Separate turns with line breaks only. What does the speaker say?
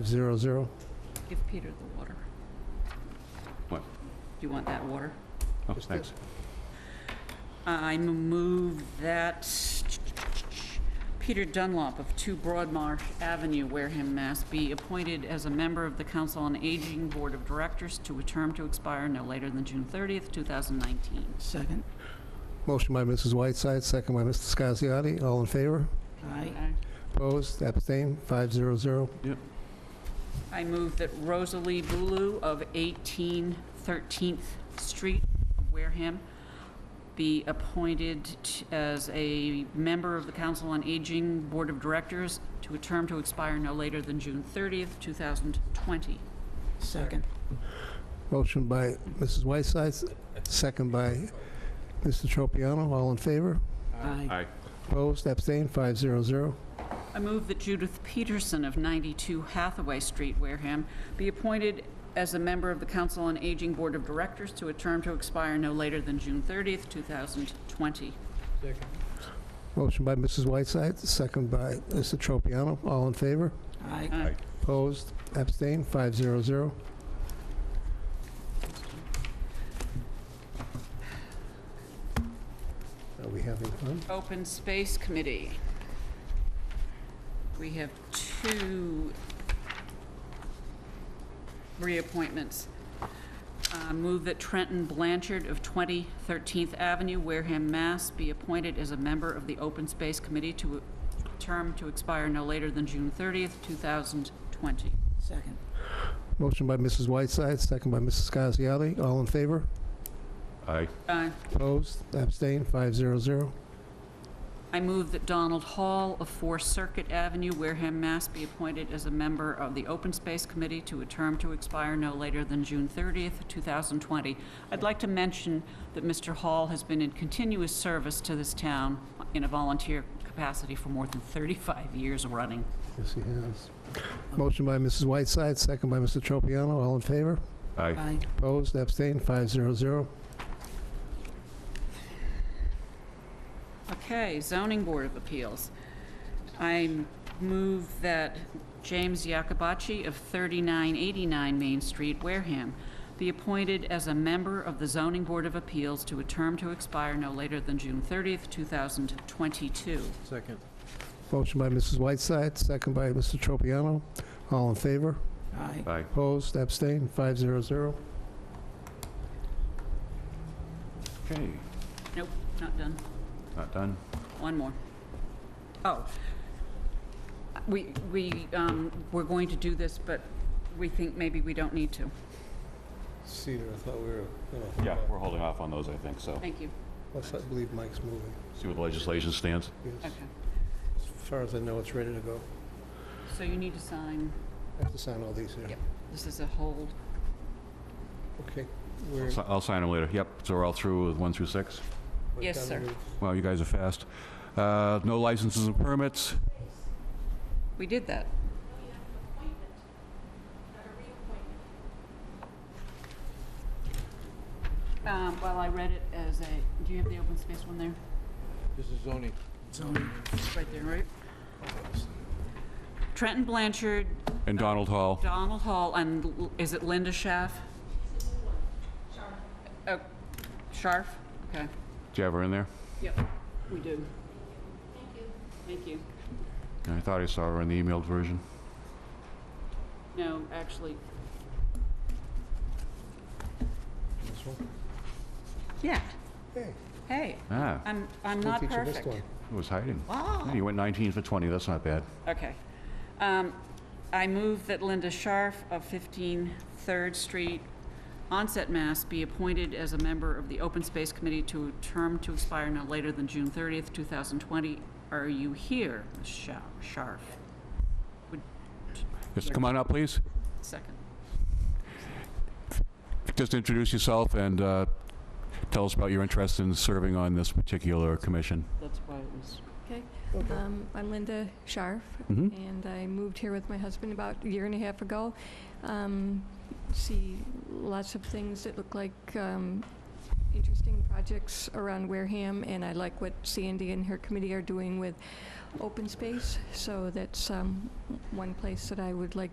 500.
Give Peter the water.
What?
You want that water?
Oh, thanks.
I move that Peter Dunlop of 2 Broadmarsh Avenue, Wareham, Mass. be appointed as a member of the Council on Aging Board of Directors to a term to expire no later than June 30th, 2019.
Second.
Motion by Mrs. Whiteside, second by Mr. Scasiati. All in favor?
Aye.
Opposed? Abstained? 500.
I move that Rosalie Bulu of 18 13th Street, Wareham, be appointed t- as a member of the Council on Aging Board of Directors to a term to expire no later than June 30th, 2020.
Second.
Motion by Mrs. Whiteside, second by Mr. Tropiano. All in favor?
Aye.
Aye.
Opposed? Abstained? 500.
I move that Judith Peterson of 92 Hathaway Street, Wareham, be appointed as a member of the Council on Aging Board of Directors to a term to expire no later than June 30th, 2020.
Motion by Mrs. Whiteside, second by Mr. Tropiano. All in favor?
Aye.
Aye.
Opposed? Abstained? 500. Are we having fun?
Open Space Committee. We have two reappointments. Uh, Move that Trenton Blanchard of 20 13th Avenue, Wareham, Mass. be appointed as a member of the Open Space Committee to a term to expire no later than June 30th, 2020.
Second.
Motion by Mrs. Whiteside, second by Mrs. Scasiati. All in favor?
Aye.
Uh,
Opposed? Abstained? 500.
I move that Donald Hall of Four Circuit Avenue, Wareham, Mass. be appointed as a member of the Open Space Committee to a term to expire no later than June 30th, 2020. I'd like to mention that Mr. Hall has been in continuous service to this town in a volunteer capacity for more than 35 years running.
Yes, he has. Motion by Mrs. Whiteside, second by Mr. Tropiano. All in favor?
Aye.
Aye.
Opposed? Abstained? 500.
Okay, zoning board of appeals. I move that James Yacobacci of 3989 Main Street, Wareham, be appointed as a member of the zoning board of appeals to a term to expire no later than June 30th, 2022.
Second.
Motion by Mrs. Whiteside, second by Mr. Tropiano. All in favor?
Aye.
Aye.
Opposed? Abstained? 500.
Okay,
Nope, not done.
not done.
One more. Oh. We, we, um, we're going to do this, but we think maybe we don't need to.
Cedar, I thought we were
Yeah, we're holding off on those, I think, so.
Thank you.
Plus, I believe Mike's moving.
See where the legislation stands?
Okay.
As far as I know, it's ready to go.
So you need to sign,
I have to sign all these here.
Yep. this is a hold.
Okay.
I'll si- I'll sign them later. Yep, so we're all through with one through six?
Yes, sir.
Wow, you guys are fast. Uh, No licenses and permits.
We did that. Um, well, I read it as a, do you have the open space one there?
This is zoning.
Zoning.
It's Right there, right? Trenton Blanchard,
And Donald Hall.
Donald Hall, and L- is it Linda Schaff? Sharf. Oh, Sharf, okay.
Do you have her in there?
Yep, we do. Thank you. Thank you.
I thought I saw her in the emailed version.
No, actually, yeah,
Hey,
hey,
Ah,
I'm, I'm
we'll
not
teach you
perfect.
this one.
it was hiding.
Wow.
Yeah, You went 19 for 20, that's not bad.
Okay. Um, I move that Linda Scharf of 15 Third Street, Onset, Mass. be appointed as a member of the Open Space Committee to a term to expire no later than June 30th, 2020. Are you here, Ms. Scha- Scharf?
Just come on up, please.
Second.
Just introduce yourself and uh, tell us about your interest in serving on this particular commission.
That's why it was.
Okay,
Okay.
um, I'm Linda Scharf,
Mhm.
and I moved here with my husband about a year and a half ago. Um, see lots of things that look like um, interesting projects around Wareham, and I like what Sandy and her committee are doing with open space, so that's um, one place that I would like